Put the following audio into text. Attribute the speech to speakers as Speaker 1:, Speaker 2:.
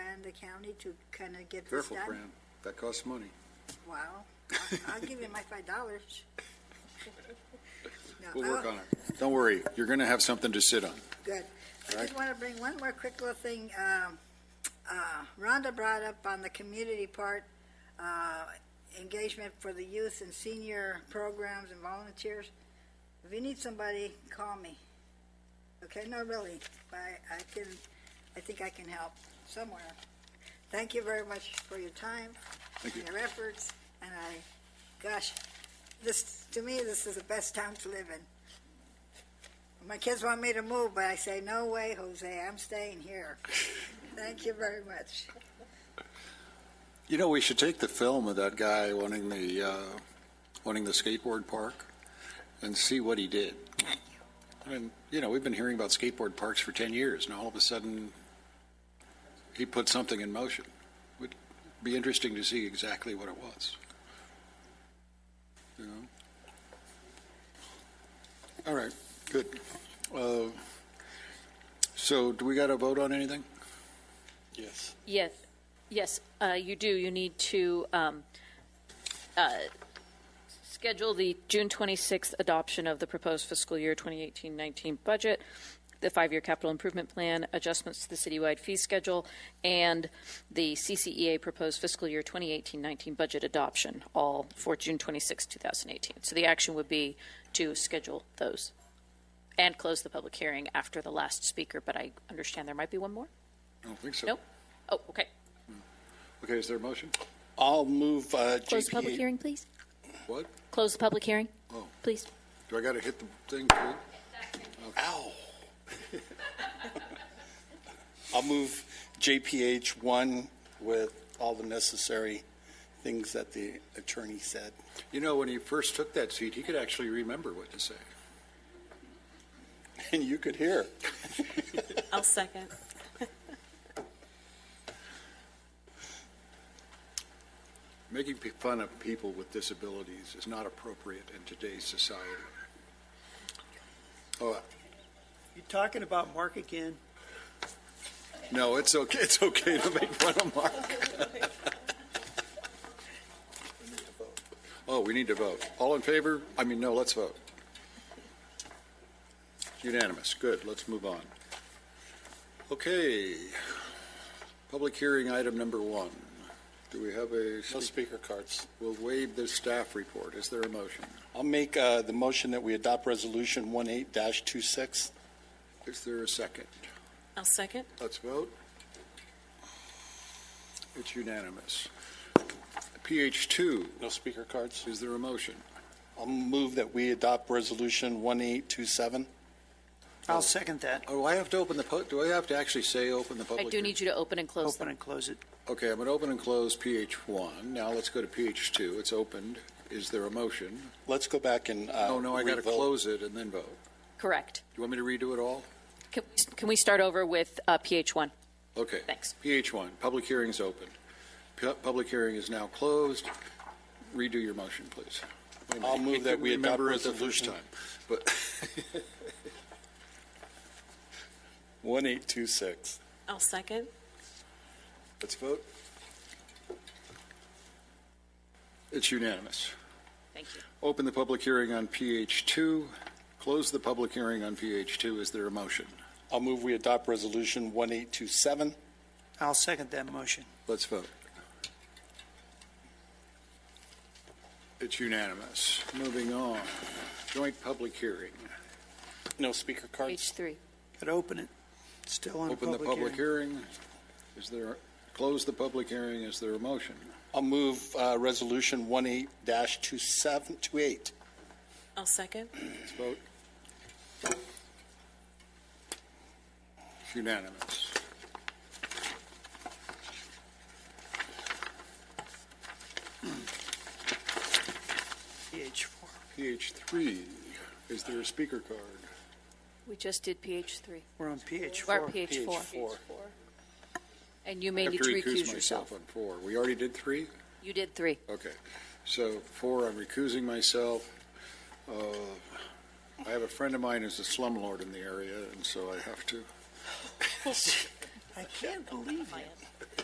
Speaker 1: the county to kind of get this
Speaker 2: Careful,
Speaker 1: done?
Speaker 2: Fran, that costs money.
Speaker 1: Wow. I'll- I'll give you my five dollars.
Speaker 2: We'll
Speaker 1: Oh.
Speaker 2: work on it. Don't worry, you're going to have something to sit on.
Speaker 1: Good. I
Speaker 2: Right.
Speaker 1: just want to bring one more quick little thing. Um, uh, Rhonda brought up on the community part, uh, engagement for the youth and senior programs and volunteers. If you need somebody, call me. Okay, no, really, but I I can, I think I can help somewhere. Thank you very much for your time
Speaker 2: Thank you.
Speaker 1: and your efforts, and I, gosh, this, to me, this is the best town to live in. My kids want me to move, but I say, no way, Jose, I'm staying here. Thank you very much.
Speaker 2: You know, we should take the film of that guy wanting the, uh, wanting the skateboard park and see what he did. I mean, you know, we've been hearing about skateboard parks for 10 years, and all of a sudden, he put something in motion. Would be interesting to see exactly what it was. You know? All right, good. Uh, So do we got to vote on anything?
Speaker 3: Yes.
Speaker 4: Yes, yes, uh, you do. You need to um, uh, schedule the June 26th adoption of the proposed fiscal year 2018-19 budget, the five-year capital improvement plan, adjustments to the citywide fee schedule, and the CCEA proposed fiscal year 2018-19 budget adoption, all for June 26, 2018. So the action would be to schedule those and close the public hearing after the last speaker, but I understand there might be one more?
Speaker 2: I don't think so.
Speaker 4: Nope? Oh, okay.
Speaker 2: Okay, is there a motion?
Speaker 3: I'll move uh,
Speaker 5: Close the public
Speaker 3: JPA.
Speaker 5: hearing, please.
Speaker 2: What?
Speaker 5: Close the public hearing,
Speaker 2: Oh.
Speaker 5: please.
Speaker 2: Do I got to hit the thing too?
Speaker 3: Ow. I'll move JPH one with all the necessary things that the attorney said.
Speaker 2: You know, when he first took that seat, he could actually remember what to say.
Speaker 3: And you could hear.
Speaker 6: I'll second.
Speaker 2: Making pe- fun of people with disabilities is not appropriate in today's society. Oh,
Speaker 7: You talking about Mark again?
Speaker 2: no, it's okay, it's okay to make fun of Mark. Oh, we need to vote. All in favor? I mean, no, let's vote. Unanimous, good, let's move on. Okay, public hearing item number one. Do we have a
Speaker 3: No
Speaker 2: speaker?
Speaker 3: speaker cards.
Speaker 2: We'll waive the staff report. Is there a motion?
Speaker 3: I'll make uh, the motion that we adopt Resolution 18-26.
Speaker 2: Is there a second?
Speaker 6: I'll second.
Speaker 2: Let's vote. It's unanimous. PH two,
Speaker 3: No speaker cards.
Speaker 2: is there a motion?
Speaker 3: I'll move that we adopt Resolution 1827.
Speaker 7: I'll second that.
Speaker 2: Oh, I have to open the, pu- do I have to actually say open the
Speaker 4: I
Speaker 2: public?
Speaker 4: do need you to open and close
Speaker 7: Open
Speaker 4: them.
Speaker 7: and close it.
Speaker 2: Okay, I'm going to open and close PH one. Now let's go to PH two. It's opened. Is there a motion?
Speaker 3: Let's go back and. uh,
Speaker 2: Oh, no, I got to
Speaker 3: revote.
Speaker 2: close it and then vote.
Speaker 4: Correct.
Speaker 2: Do you want me to redo it all?
Speaker 4: Can, can we start over with uh, PH1?
Speaker 2: Okay.
Speaker 4: Thanks.
Speaker 2: PH one, public hearing is open. Pu- Public hearing is now closed. Redo your motion, please. Wait a minute.
Speaker 3: I'll move
Speaker 2: I
Speaker 3: that
Speaker 2: couldn't
Speaker 3: we adopt
Speaker 2: remember it the first
Speaker 3: resolution.
Speaker 2: time, But
Speaker 3: 1826.
Speaker 6: I'll second.
Speaker 2: let's vote. It's unanimous.
Speaker 4: Thank you.
Speaker 2: Open the public hearing on PH two. Close the public hearing on PH two. Is there a motion?
Speaker 3: I'll move we adopt Resolution 1827.
Speaker 7: I'll second that motion.
Speaker 2: Let's vote. It's unanimous. Moving on. Joint public hearing.
Speaker 3: No speaker
Speaker 2: Uh,
Speaker 3: cards.
Speaker 4: PH3.
Speaker 7: Got to open it. Still on
Speaker 2: Open the
Speaker 7: public
Speaker 2: public
Speaker 7: hearing.
Speaker 2: hearing. Is there, close the public hearing. Is there a motion?
Speaker 3: I'll move uh, Resolution 18-2728.
Speaker 6: I'll second.
Speaker 2: Let's vote. It's unanimous.
Speaker 7: PH four.
Speaker 2: PH three, is there a speaker card?
Speaker 4: We just did PH3.
Speaker 7: We're on PH
Speaker 4: Or
Speaker 7: four.
Speaker 4: PH4.
Speaker 3: PH4.
Speaker 4: And you
Speaker 2: I
Speaker 4: may
Speaker 2: have
Speaker 4: need to
Speaker 2: recuse
Speaker 4: recuse
Speaker 2: myself
Speaker 4: yourself.
Speaker 2: On four. We already did three?
Speaker 4: You did three.
Speaker 2: Okay. So four, I'm recusing myself. Uh, I have a friend of mine who's a slumlord in the area, and so I have to
Speaker 7: I can't believe it.